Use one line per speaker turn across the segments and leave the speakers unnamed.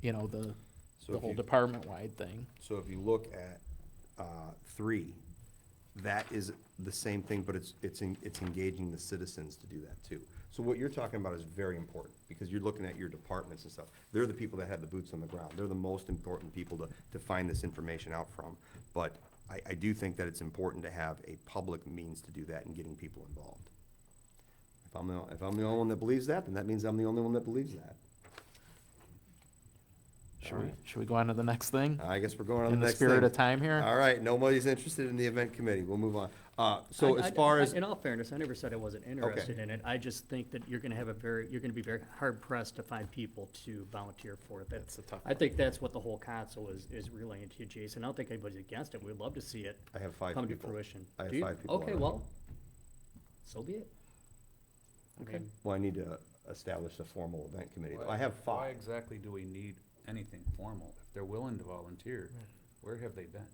you know, the,
So
the
if
whole
you,
department-wide thing.
so if you look at, uh, three, that is the same thing, but it's, it's, en- it's engaging the citizens to do that too. So what you're talking about is very important, because you're looking at your departments and stuff. They're the people that have the boots on the ground. They're the most important people to, to find this information out from. But I, I do think that it's important to have a public means to do that and getting people involved. If I'm the, if I'm the only one that believes that, then that means I'm the only one that believes that.
Should we, should we go on to the next thing?
I guess we're going on to
In
Uh, the
the
next thing.
spirit of time here?
All right, nobody's interested in the event committee, we'll move on. Uh, so
I-
as
I-
far
I-
as,
In all fairness, I never said I wasn't interested in it. I just think that you're gonna have a very, you're gonna be very hard pressed to find people to volunteer for it. That's,
That's a tough
I think that's what the whole council is, is relaying to you, Jason. I don't think anybody's against it. We'd love to see it
I have five
come to
people.
fruition.
I have
Do you?
five people
Okay,
already.
well, so be it. I
Okay.
mean,
well, I need to establish a formal event committee, though. I
Why-
have
Why
five.
exactly do we need anything formal? If they're willing to volunteer, where have they been?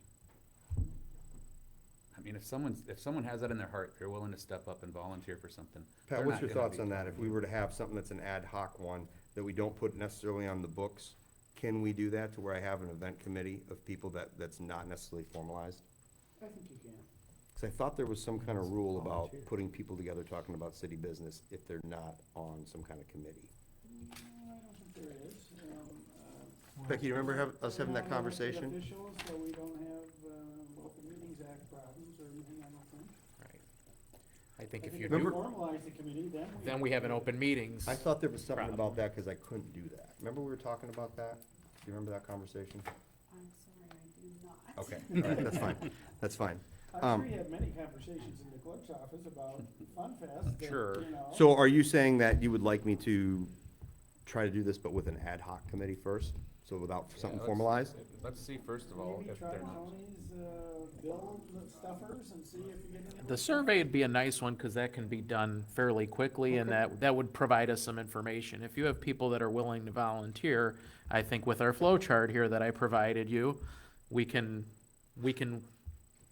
I mean, if someone's, if someone has that in their heart, they're willing to step up and volunteer for something.
Pat,
they're
what's
not
your
gonna
thoughts
be-
on that, if we were to have something that's an ad hoc one, that we don't put necessarily on the books, can we do that to where I have an event committee of people that, that's not necessarily formalized?
I think you can.
Cause I thought there was some kind of rule about putting people together talking about city business if they're not on some kind of committee.
No, Mm, I don't think there is. um, uh,
Becky, you remember have, us
we
having
don't
that
have elected
conversation?
Officials, so we don't have um, Open Meetings Act problems or anything, I don't think.
I think if you
I think if
do,
we
Remember-
formalize the committee, then we.
then we have an open meetings.
I thought there was something
Problem.
about that, cause I couldn't do that. Remember we were talking about that? Do you remember that conversation?
I'm sorry, I
Okay,
do not.
all right, that's fine, that's fine.
I'm
Um,
sure you had many conversations in the clerk's office about Fun Fest, that,
Sure.
you know.
So are you saying that you would like me to try to do this, but with an ad hoc committee first? So without
Yeah,
something
let's-
formalized?
Let's see, first of all,
Maybe
if
try
they're not.
Tony's, uh, bill stuffers and see if you get any.
The survey would be a nice one, cause that can be done fairly quickly, and that, that would provide us some information. If you have people that are willing to volunteer, I think with our flow chart here that I provided you, we can, we can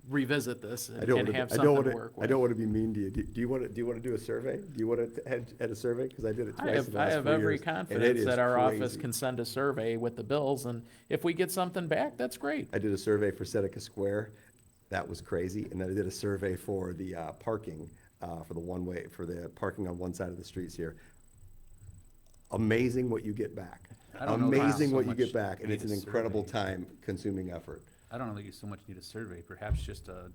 revisit this and
I don't
and
wanna-
have
I don't
something to
wanna-
work
I
with.
don't wanna be mean to you. Do do you wanna, do you wanna do a survey? Do you wanna head, head a survey? Cause I did it
I
twice in
have,
the
I
last
have
four
every
years, and it
confidence
is
that our office
crazy.
can send a survey with the bills, and if we get something back, that's great.
I did a survey for Seneca Square. That was crazy. And then I did a survey for the uh, parking, uh, for the one-way, for the parking on one side of the streets here. Amazing what you get back.
I don't know that I
Amazing
so
what you get
much
back, and
need
it's an
a
incredible
survey.
time-consuming effort.
I don't know that you so much need a survey, perhaps just a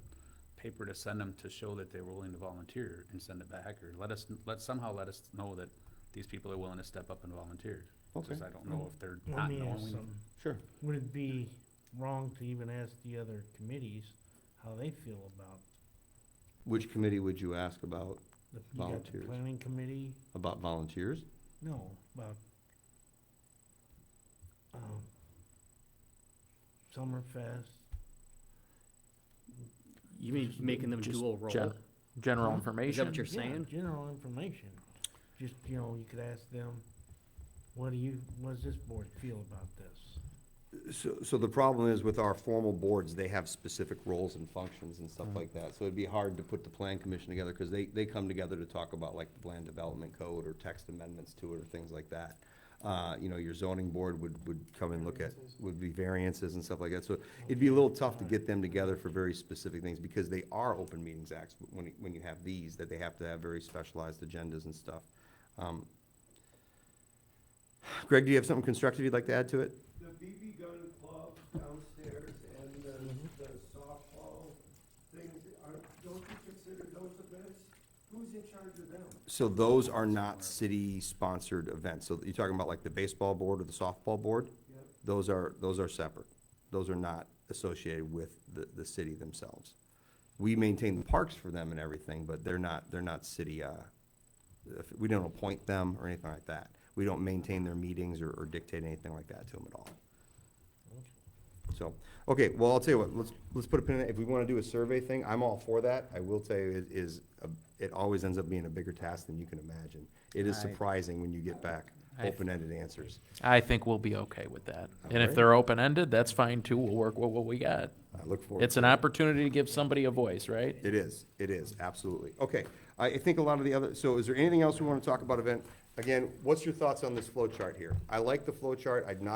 paper to send them to show that they're willing to volunteer and send it back, or let us, let, somehow let us know that these people are willing to step up and volunteer. It's just I don't know if they're
Let
not
me ask
knowing.
something.
Sure.
Would it be wrong to even ask the other committees how they feel about,
Which committee would you ask about,
the- you got the
Volunteers.
planning committee?
about volunteers?
No, about, um, Summerfest,
You mean making them
Just
dual role?
gen- General
Huh?
Mm-hmm. Is that
information,
what you're
Yeah,
saying?
General information. Just, you know, you could ask them, what do you, what does this board feel about this?
So, so the problem is with our formal boards, they have specific roles and functions and stuff like that. So it'd be hard to put the plan commission together because they, they come together to talk about like the land development code or text amendments to it or things like that. Uh, you know, your zoning board would, would come and look at, would be variances and stuff like that. So it'd be a little tough to get them together for very specific things because they are open meetings acts when, you- when you have these, that they have to have very specialized agendas and stuff. Um, Greg, do you have something constructive you'd like to add to it?
the BB gun club downstairs and the,
Mm-hmm.
the softball things, are, don't you consider those events? Who's in charge of them?
So those are not city-sponsored events, so you're talking about like the baseball board or the softball board?
Yep.
Those are, those are separate, those are not associated with the, the city themselves. We maintain the parks for them and everything, but they're not, they're not city, uh, if- we don't appoint them or anything like that. We don't maintain their meetings or or dictate anything like that to them at all. So, okay, well, I'll tell you what, let's, let's put a pin in it, if we wanna do a survey thing, I'm all for that, I will tell you, it is, a- it always ends up being a bigger task than you can imagine. It is
I-
surprising when you get back
I-
open-ended answers.
I think we'll be okay with that. And if
Alright.
they're open-ended, that's fine too, we'll work with what we got.
I look forward.
It's an opportunity to give somebody a voice, right?
It is, it is, absolutely. Okay, I, I think a lot of the other, so is there anything else we wanna talk about event? Again, what's your thoughts on this flow chart here? I like the flow chart, I'd not